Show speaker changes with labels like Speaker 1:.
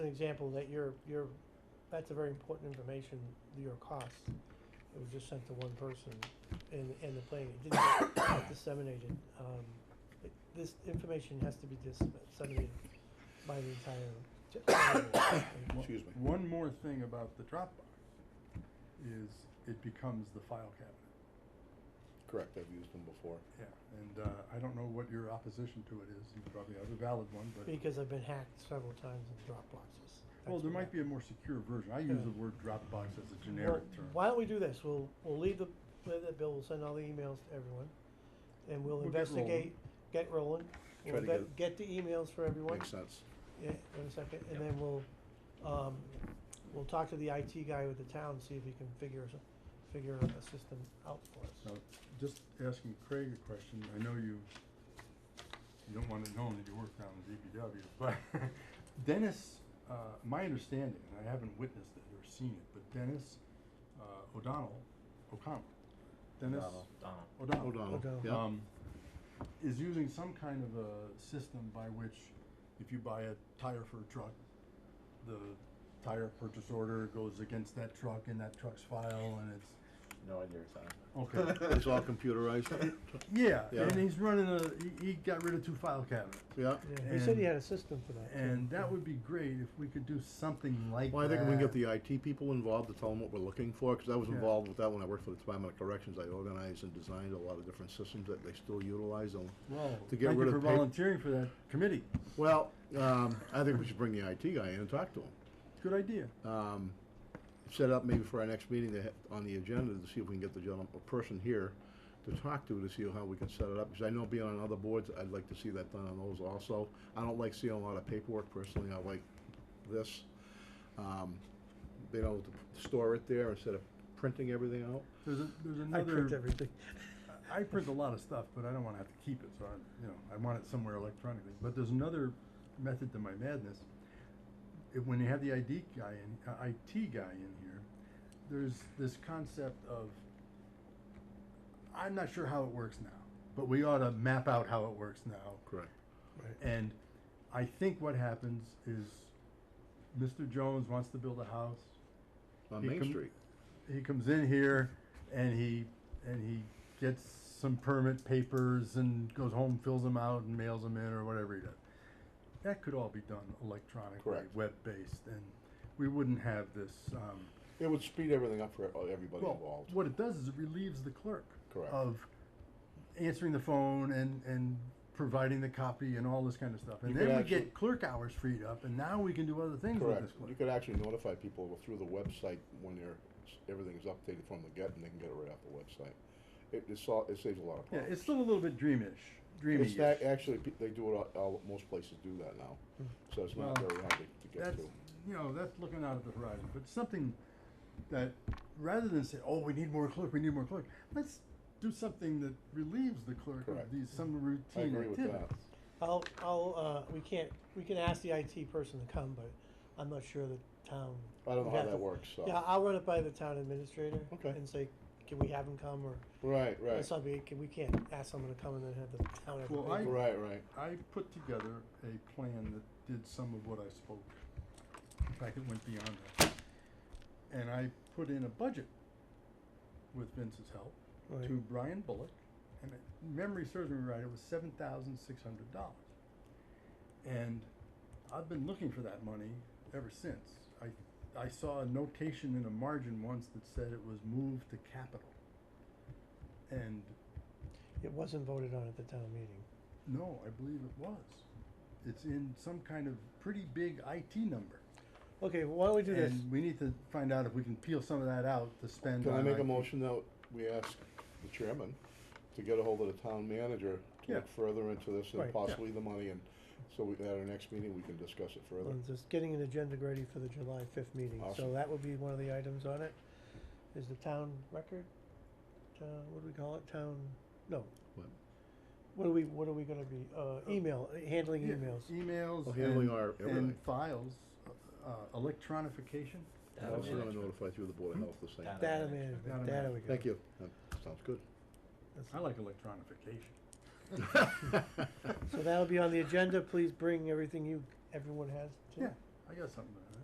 Speaker 1: example that your, your, that's a very important information, your costs. It was just sent to one person in, in the planning, it didn't get disseminated. Um, it- This information has to be disseminated by the entire. j-
Speaker 2: Excuse me.
Speaker 3: One more thing about the Dropbox is it becomes the file cabinet.
Speaker 2: Correct, I've used them before.
Speaker 3: Yeah. And uh, I don't know what your opposition to it is. You probably have a valid one, but
Speaker 1: Because I've been hacked several times in Dropboxes.
Speaker 3: well,
Speaker 1: That's what
Speaker 3: there might be a more secure version. I use
Speaker 1: Yeah.
Speaker 3: the word Dropbox as a
Speaker 1: Well,
Speaker 3: generic term.
Speaker 1: Why don't we do this? We'll, we'll leave the, leave that bill, we'll send all the emails to everyone. And we'll
Speaker 3: We'll get rolling.
Speaker 1: investigate, get rolling.
Speaker 2: Try
Speaker 1: We'll
Speaker 2: to
Speaker 1: get, get the emails for everyone.
Speaker 2: Makes sense.
Speaker 1: Yeah, in a second, and then we'll, um, we'll talk to the IT guy with the town, see if he can figure, us- figure a system out for us.
Speaker 3: Now, just asking Craig a question, I know you, you don't want it known that you work down in DPW, but Dennis, uh, my understanding, and I haven't witnessed it or seen it, but Dennis, uh, O'Donnell, O'Connell, Dennis
Speaker 2: O'Donnell.
Speaker 4: Donald.
Speaker 3: O'Donnell.
Speaker 2: O'Donnell,
Speaker 1: O'Donnell.
Speaker 2: yeah.
Speaker 3: Um, is using some kind of a system by which if you buy a tire for a truck, the tire purchase order goes against that truck in that truck's file and it's,
Speaker 4: No idea what you're
Speaker 3: okay.
Speaker 2: It's all computerized,
Speaker 3: Yeah,
Speaker 2: Yeah.
Speaker 3: and he's running a. He, he got rid of two file cabinets,
Speaker 2: yeah.
Speaker 1: Yeah, he said he
Speaker 3: And-
Speaker 1: had a system for that. too.
Speaker 3: and that would be great if we could do something like.
Speaker 2: Well, I
Speaker 3: that.
Speaker 2: think we can get the IT people involved to tell them what we're looking for, because I was
Speaker 3: Yeah.
Speaker 2: involved with that when I worked for the Department of Corrections. I organized and designed a lot of different systems that they still utilize. And,
Speaker 3: Well,
Speaker 2: to get
Speaker 3: thank
Speaker 2: rid
Speaker 3: you
Speaker 2: of
Speaker 3: for
Speaker 2: pap-
Speaker 3: volunteering for that committee.
Speaker 2: Well, um, I think we should bring the IT guy in and talk to him.
Speaker 3: Good idea.
Speaker 2: Um, set up maybe for our next meeting to ha- on the agenda to see if we can get the gentleman, a person here to talk to to see how we can set it up, because I know being on other boards, I'd like to see that done on those also. I don't like seeing a lot of paperwork personally. I like this. Um, being able to store it there instead of printing everything out.
Speaker 3: There's a, there's
Speaker 1: I
Speaker 3: another.
Speaker 1: print everything.
Speaker 3: I print a lot of stuff, but I don't want to have to keep it, so I, you know, I want it somewhere electronically. But there's another method to my madness. If, when you have the ID guy in, uh, IT guy in here, there's this concept of, I'm not sure how it works now, but we ought to map out how it works now.
Speaker 2: Correct.
Speaker 3: And I think what happens is, Mr. Jones wants to build a house.
Speaker 2: On
Speaker 3: He
Speaker 2: Main
Speaker 3: com-
Speaker 2: Street.
Speaker 3: He comes in here and he, and he gets some permit papers and goes home, fills them out and mails them in or whatever he does. That could all be done electronically,
Speaker 2: Correct.
Speaker 3: web-based, and we wouldn't have this, um,
Speaker 2: It would speed everything up for everybody
Speaker 3: well,
Speaker 2: involved.
Speaker 3: what it does is it relieves the clerk
Speaker 2: Correct.
Speaker 3: of answering the phone and, and providing the copy and all this kind of stuff. And
Speaker 2: You could
Speaker 3: then we
Speaker 2: actually-
Speaker 3: get clerk hours freed up, and now we can do other things with
Speaker 2: Correct.
Speaker 3: this
Speaker 2: You
Speaker 3: clerk.
Speaker 2: could actually notify people through the website when they're, everything's updated from the get, and they can get it right off the website. It, it's all, it saves a lot of
Speaker 3: Yeah,
Speaker 2: problems.
Speaker 3: it's still a little bit dreamish, dreamy.
Speaker 2: It's not, actually, pe- they do it, all- all, most places do that now, so it's not
Speaker 3: Well,
Speaker 2: very hard to to get
Speaker 3: That's
Speaker 2: to.
Speaker 3: you know that's looking out at the horizon, but something that rather than say, oh, we need more clerk, we need more clerk, let's do something that relieves the clerk
Speaker 2: Correct.
Speaker 3: of these some
Speaker 2: I
Speaker 3: routine
Speaker 2: agree with
Speaker 3: activities.
Speaker 2: that.
Speaker 1: I'll, I'll, uh, we can't, we can ask the IT person to come, but I'm not sure the town.
Speaker 2: I don't know
Speaker 1: would
Speaker 2: how
Speaker 1: have
Speaker 2: that
Speaker 1: to-
Speaker 2: works, so.
Speaker 1: Yeah, I'll run it by the town administrator.
Speaker 2: Okay.
Speaker 1: And say, can we have him come, or,
Speaker 2: Right, right,
Speaker 1: it's not, we can, we can't ask someone to come and then have the town. have the
Speaker 3: Well, I-
Speaker 1: paperwork.
Speaker 2: right, right.
Speaker 3: I put together a plan that did some of what I spoke. In fact, it went beyond that. And I put in a budget with Vince's help
Speaker 1: Right.
Speaker 3: to Brian Bullock. And if memory serves me right, it was seven thousand six hundred dollars. And I've been looking for that money ever since. I, I saw a notation in a margin once that said it was moved to capital. And
Speaker 1: It wasn't voted on at the town meeting.
Speaker 3: no, I believe it was. It's in some kind of pretty big IT number.
Speaker 1: Okay, why don't we do this?
Speaker 3: And we need to find out if we can peel some of that out to spend
Speaker 2: Can I
Speaker 3: on
Speaker 2: make a
Speaker 3: IT.
Speaker 2: motion that we ask the chairman to get a hold of the town manager to
Speaker 3: Yeah.
Speaker 2: look further into this
Speaker 1: Right, yeah.
Speaker 2: and possibly the money, and so we, at our next meeting, we can discuss it further.
Speaker 1: on just getting an agenda ready for the July fifth meeting, so
Speaker 2: Awesome.
Speaker 1: that would be one of the items on it, is the town record? Uh, what do we call it, town, no.
Speaker 2: What?
Speaker 1: What are we, what are we gonna be, uh, email, handling
Speaker 3: Yeah,
Speaker 1: emails?
Speaker 3: Emails.
Speaker 2: Well, Oh, handling
Speaker 3: and-
Speaker 2: our everything.
Speaker 3: And files, uh, electronification.
Speaker 2: I
Speaker 4: talking about.
Speaker 2: was gonna notify through the Board of Health the same.
Speaker 1: Data
Speaker 4: Data.
Speaker 3: Data
Speaker 1: management, data we
Speaker 3: management.
Speaker 1: got.
Speaker 2: Thank you, that sounds good.
Speaker 3: I like electronification.
Speaker 1: So that'll be on the agenda, please bring everything you, everyone has to.
Speaker 3: Yeah, I I got something to add.